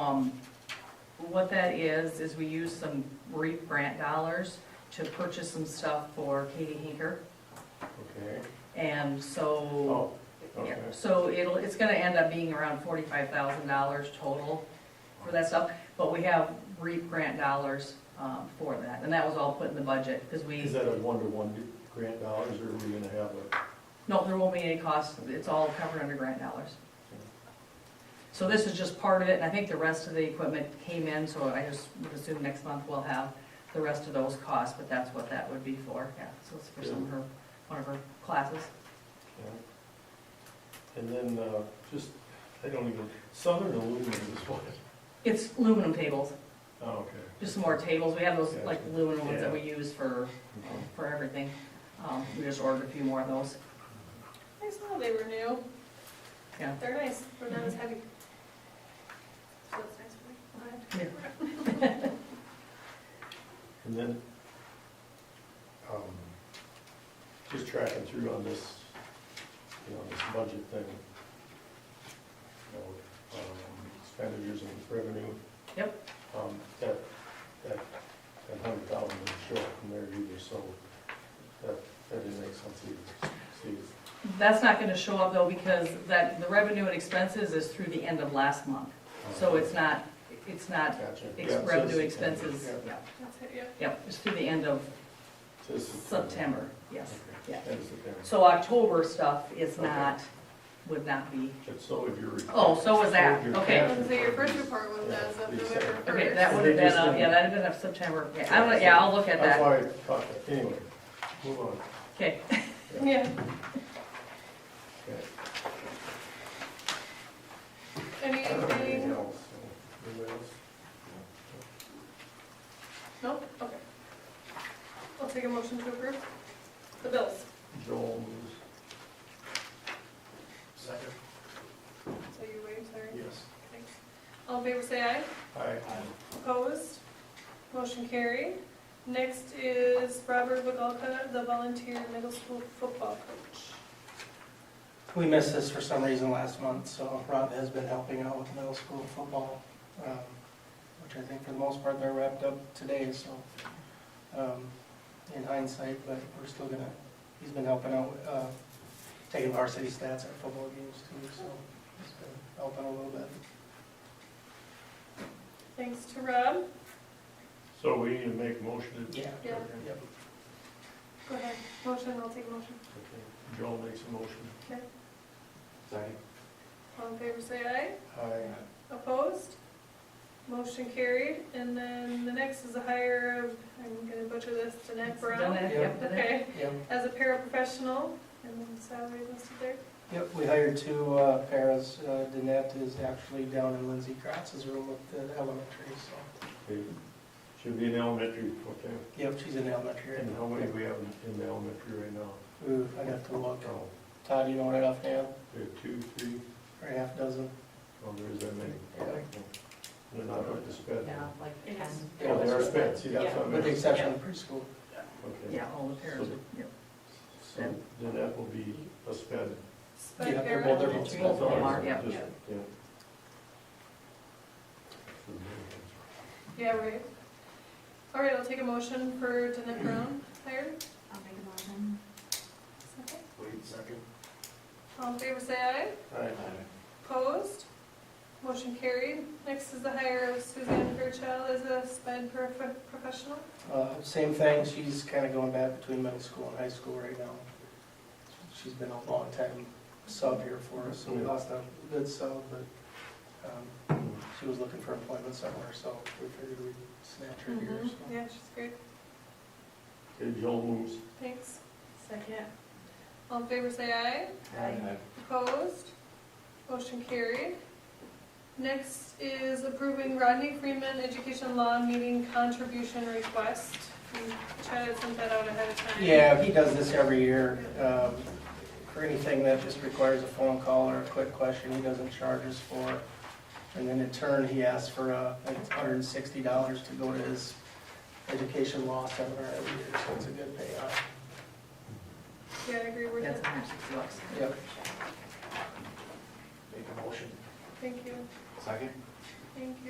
Um, What that is, is we use some REAP grant dollars to purchase some stuff for Katie Hinker. Okay, And so, oh, yeah, okay. so it'll, it's gonna end up being around forty-five thousand dollars total for that stuff. But we have REAP grant dollars um, for that, and that was all put in the budget, because Is we, that a one-to-one grant dollars, or are we gonna have a, no, there won't be any cost, it's all covered under grant dollars. So this is just part of it, and I think the rest of the equipment came in, so I just would assume next month we'll have the rest of those costs, but that's what that would be for, yeah, so it's for some of her, one of her classes. yeah. And then, uh, just, I don't even, Southern Aluminum is what, It's aluminum tables, oh, okay. just some more tables, we have those like aluminum ones that we Yeah. use for, um, Okay. for everything. Um, we just ordered a few more of those, I saw they were new. Yeah. They're nice, they're not as heavy. So that's nice for me. I'll have to- And then, um, just tracking through on this, you know, this budget thing. You know, um, expenditures and revenue. Yep. Um, that, that, that hundred thousand didn't show up from there either, so that, that didn't make sense either. Steve. That's not gonna show up though, because that, the revenue and expenses is through the end of last month, so it's not, it's not Gotcha. um, Yeah, it ex- says revenue September. expenses, Yeah, yeah, That's it, yeah. yep, it's through the end of it says September, yes. Okay, yeah. That is September. So October stuff is Okay. not, would not be, But so if you're. oh, so was that, Your okay. cash- And so your first report was as of Yeah, November first. Okay, that would They have been, just up- yeah, didn't- that'd have been up September, yeah, I'm, gonna- yeah, I'll look at That's that, why I thought that, anyway, move on. okay. Yeah, Okay. I don't have anything anything, else, so, anybody else? nope, okay. I'll take a motion to approve the bills. Joel moves. Second. So you wait, sorry. Yes. Thanks. All in favor, say aye. Aye. Opposed? Motion carried. Next is Robert Vigalka, the volunteer middle school football coach. We missed this for some reason last month, so Rob has been helping out with middle school football, um, which I think for the most part they're wrapped up today, so um, in hindsight, but we're still gonna, he's been helping out, uh, taking varsity stats at football games too, so he's been helping a little bit. Thanks to Rob. So we need to make a motion to. Yeah. Yeah. Okay. Yep. Go ahead, motion, I'll take a motion. Okay. Joel makes a motion. Okay. Second. All in favor, say aye. Aye. Opposed? Motion carried. And then the next is a hire of, I'm gonna butcher this, Danette Brown. Done it, yep, done it. Okay, Yep. as a paraprofessional, and then salary listed there. Yep, we hired two uh, paras. Uh, Danette is actually down in Lindsey Kratz's room with the elementary, so. Okay. Should be in elementary, okay. Yep, she's in elementary right And how now. many do we have in- in the elementary right now? Ooh, I'd have to look. Oh, Todd, you know what enough now? we have two, three, Or a half dozen? oh, there is that many. Yeah. They're not up to sped. Yeah, like, Yes. Oh, they are sped, see, that's what I With the meant. exception of preschool. Okay. yeah, all the pairs, yep. So then that will be a sped. Sped Yeah, they're para. both- they're both Both of sped. them are, yeah. Just- yeah. Yeah, right. All right, I'll take a motion for Danette Brown hired. I'll make a motion. Second. Wait a second. All in favor, say aye. Opposed? Motion carried. Next is the hire of Suzanne Fairchild as a sped prof- professional. Uh, Same thing, she's kind of going back between middle school and high school right now. She's been a long time sub here for us, so we lost a good sub, but um, she was looking for employment somewhere, so we figured we'd snatch her here. so. Mm-hmm. Yeah, she's great. Okay, Joel moves. Thanks. Second. All in favor, say aye. Aye. Opposed? Motion carried. Next is approving Rodney Freeman Education Law Meeting Contribution Request. We chatted sent that out ahead of time. Yeah, he does this every year. um, For anything that just requires a phone call or a quick question, he doesn't charge us for. And then in turn, he asks for uh, like $160 to go to his education law seminar every year, so it's a good payoff. Yeah, I agree with That's that. a hundred and sixty bucks. Yep. Make a motion. Thank you. Second. Thank you.